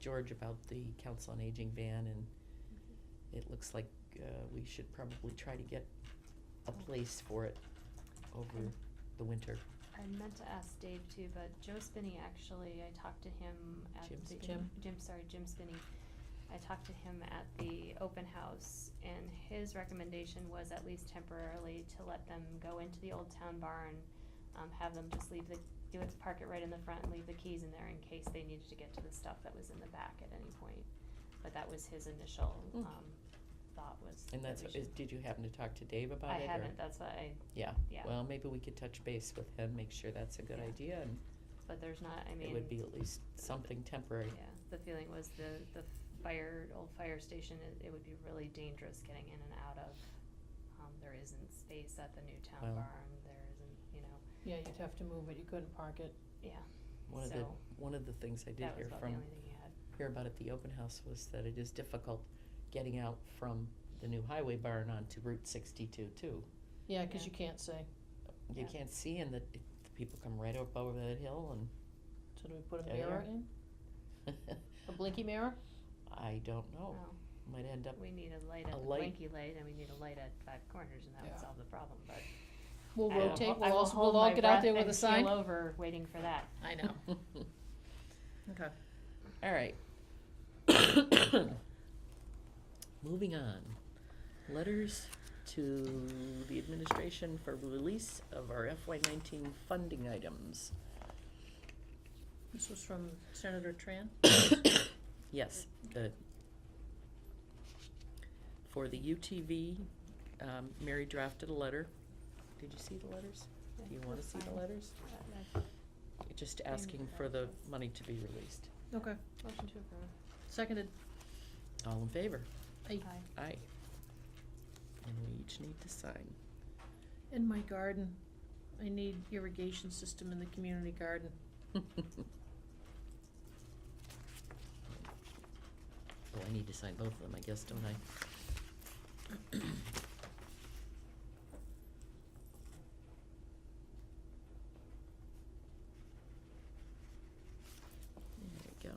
George about the Council on Aging van, and it looks like uh, we should probably try to get a place for it over Mm. the winter. I meant to ask Dave too, but Joe Spinney actually, I talked to him at Jim the Spinney? Jim. Jim, sorry, Jim Spinney. I talked to him at the open house and his recommendation was at least temporarily to let them go into the old town barn. Um, have them just leave the, do it, park it right in the front and leave the keys in there in case they needed to get to the stuff that was in the back at any point. But that was his initial, Mm. um, thought was. And that that's, we is, should- did you happen to talk to Dave about I it? or- haven't, that's why, Yeah, yeah, well, maybe we could touch base with him, make sure that's a good Yeah. idea, and but there's not, I mean. it would be at least something temporary. Yeah, the feeling was the, the fire, old fire station, it, it would be really dangerous getting in and out of. Um, there isn't space at the new town Well. barn, there isn't, you know, Yeah, you'd have to move it, you couldn't park it. yeah, One of the, So, one of the things I did that was hear about the from, only thing he had. hear about at the open house was that it is difficult getting out from the new highway barn onto Route sixty-two too. Yeah, 'cause Yeah. you can't say, You Yeah. can't see and the, the people come right up over that hill so do we put a There you mirror are. in? and A blinky mirror? I don't know, Well, might end up, We need a light Oh, a at the light. Blanky light, and we need a light at Five Corners, and that Yeah. would solve the problem, but. We'll I will rotate, ho- I we'll will also, hold we'll all my get out breath there with and a sign. Keel over, waiting for that. I know. Okay. alright. Moving on, letters to the administration for release of our FY nineteen funding items, This was from Senator Tran? yes, the for the UTV, um, Mary drafted a letter, did you see the letters? Do you wanna see the letters? Just asking for the money to be released, Okay, Motion to approve. seconded. all in favor? I, Aye. Aye. And we each need to sign. in my garden, I need irrigation system in the community garden. Oh, I need to sign both of them, I guess, don't I? There we go.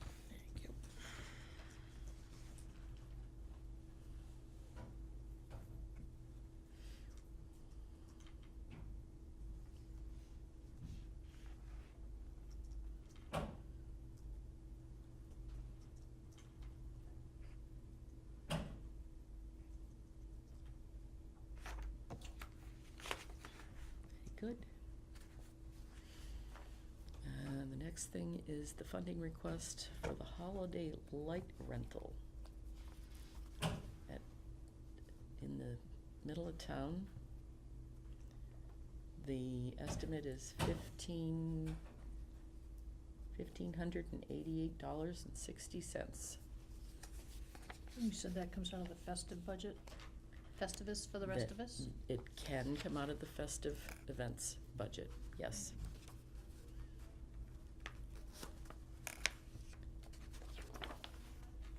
Thank you. Very Good. Uh, the next thing is the funding request for the holiday light rental. At, in the middle of town. The estimate is fifteen, fifteen hundred and eighty-eight dollars and sixty cents. You said that comes out of the festive budget? Festivus for the rest That- of us? It can come out of the festive events budget, yes.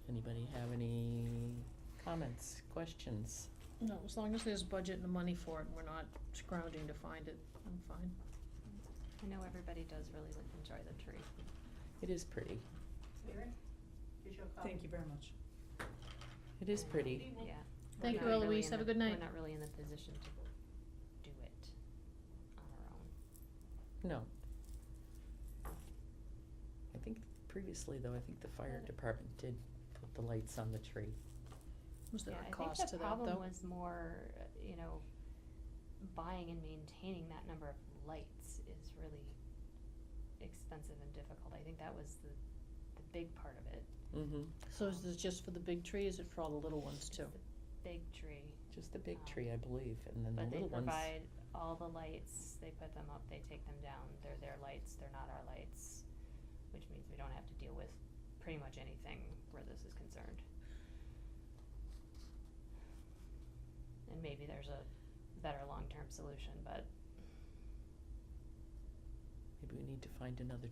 Anybody have any comments, questions? No, as long as there's budget and the money for it, and we're not scrounging to find it, I'm fine. I know everybody does really enjoy the tree. It is pretty, Thank you very much. it is pretty. Yeah. Thank We're you, not really Eloise. in Have a the- good night. We're not really in the position to do it on our own. No. I think previously though, I think the fire department did put the lights on the tree. Was there Yeah, a cost to that, though? I think the problem was more, uh, you know, buying and maintaining that number of lights is really expensive and difficult. I think that was the, the big part of it. Mm-hmm, So is this just for the big tree, is it for all the little ones It's too? the Big tree, just the big tree, I believe, and then the but they little ones. provide all the lights, they put them up, they take them down, they're their lights, they're not our lights, which means we don't have to deal with pretty much anything where this is concerned. And maybe there's a better long-term solution, but Maybe maybe we need to find another